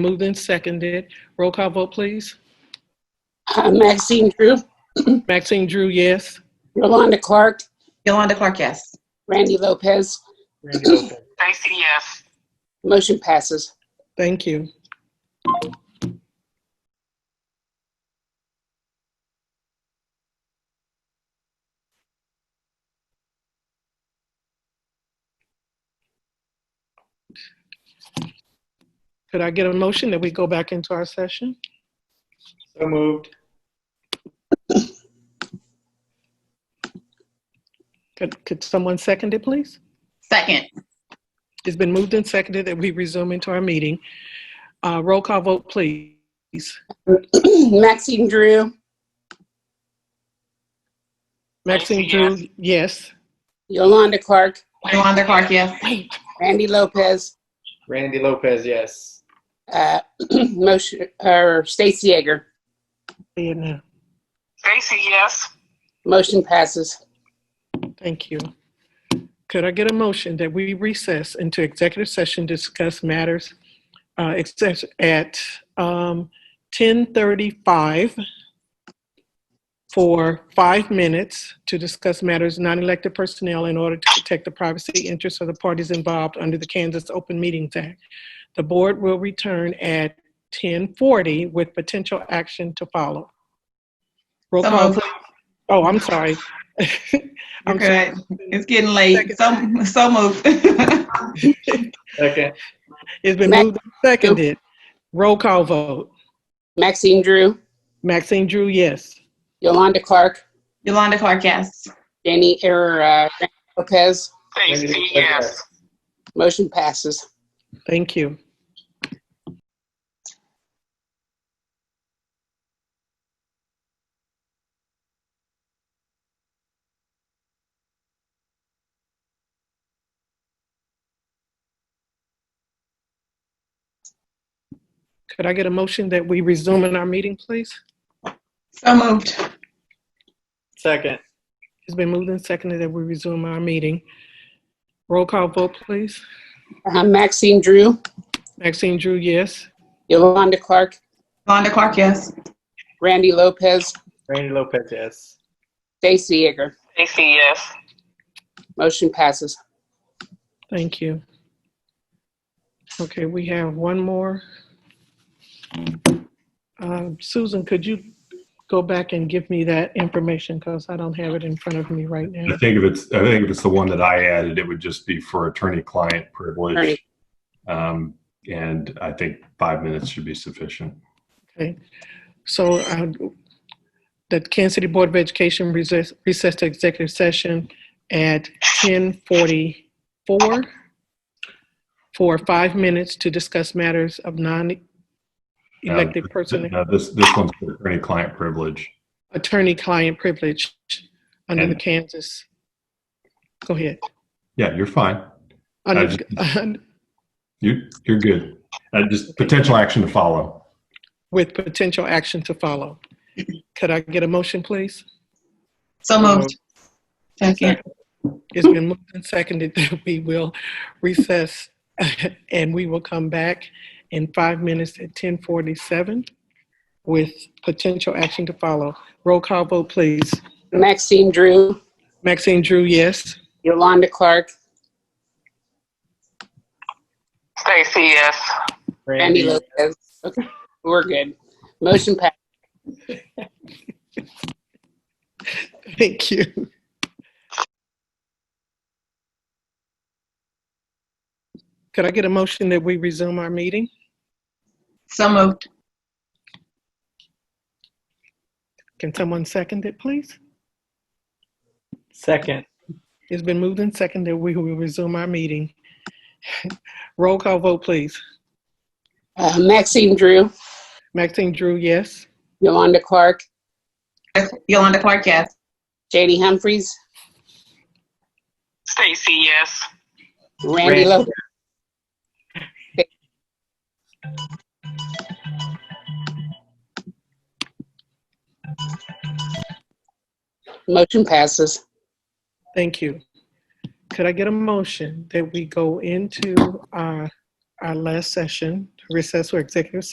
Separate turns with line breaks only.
Moved and seconded. Roll call vote, please.
Uh, Maxine Drew,
Maxine Drew, yes.
Rolanda Clark,
Yolanda Clark, yes.
Randy Lopez.
Randy Lopez.
Stacy, yes.
Motion passes.
Thank you. Could I get a motion that we go back into our session?
So moved.
Could, could someone second it, please?
Second,
It's been moved and seconded that we resume into our meeting. Uh, roll call vote, please.
Maxine Drew,
Maxine
Yes.
Drew, yes.
Yolanda Clark,
Yolanda Clark, yes.
Randy Lopez,
Randy Lopez, yes.
uh, motion, or Stacy Egger.
Yeah, no.
Stacy, yes.
Motion passes.
Thank you. Could I get a motion that we recess into executive session, to discuss matters uh, except at um, 10:35 for five minutes to discuss matters non-elected personnel in order to protect the privacy interests of the parties involved under the Kansas Open Meetings Act. The board will return at 10:40 with potential action to follow. Roll
So
call.
moved.
Oh, I'm sorry. I'm
Okay, it's getting late. So, so moved.
Second,
It's been
Mac-
moved and seconded. Roll call vote.
Maxine Drew,
Maxine Drew, yes.
Yolanda Clark,
Yolanda Clark, yes.
Danny, or, uh, Randy Lopez.
Randy
Stacy,
Lopez,
yes.
Motion passes.
Thank you. Could I get a motion that we resume in our meeting, please?
So moved.
Second,
It's been moved and seconded that we resume our meeting. Roll call vote, please.
Uh, Maxine Drew,
Maxine Drew, yes.
Yolanda Clark,
Yolanda Clark, yes.
Randy Lopez,
Randy Lopez, yes.
Stacy Egger.
Stacy, yes.
Motion passes.
Thank you. Okay, we have one more. Um, Susan, could you go back and give me that information because I don't have it in front of me right
I
now.
think if it's, I think if it's the one that I added, it would just be for attorney-client
Attorney.
privilege. Um, And I think five minutes should be sufficient.
Okay, so uh, the Kansas City Board of Education recess recess to executive session at 10:44 for five minutes to discuss matters of
Uh,
non-elected personnel.
Um, No, This, this one's for attorney-client privilege.
attorney-client privilege under the
And-
Kansas, go ahead.
Yeah, you're fine.
Under-
You, you're good. Uh, Just potential action to follow.
With potential action to follow. Could I get a motion, please?
So moved. Second,
It's been moved and seconded that we will recess and we will come back in five minutes at 10:47 with potential action to follow. Roll call vote, please.
Maxine Drew,
Maxine Drew, yes.
Yolanda Clark,
Stacy, yes.
Randy Lopez. Okay, we're good. Motion passes.
Thank you. Could I get a motion that we resume our meeting?
so moved.
Can someone second it, please?
Second,
It's been moved and seconded. We will resume our meeting. Roll call vote, please.
Uh, Maxine Drew,
Maxine Drew, yes.
Yolanda Clark,
Yolanda Clark, yes.
JD Humphries,
Stacy, yes.
Randy
Randy.
Lopez. Motion passes.
Thank you. Could I get a motion that we go into our, our uh, last session recess for executive session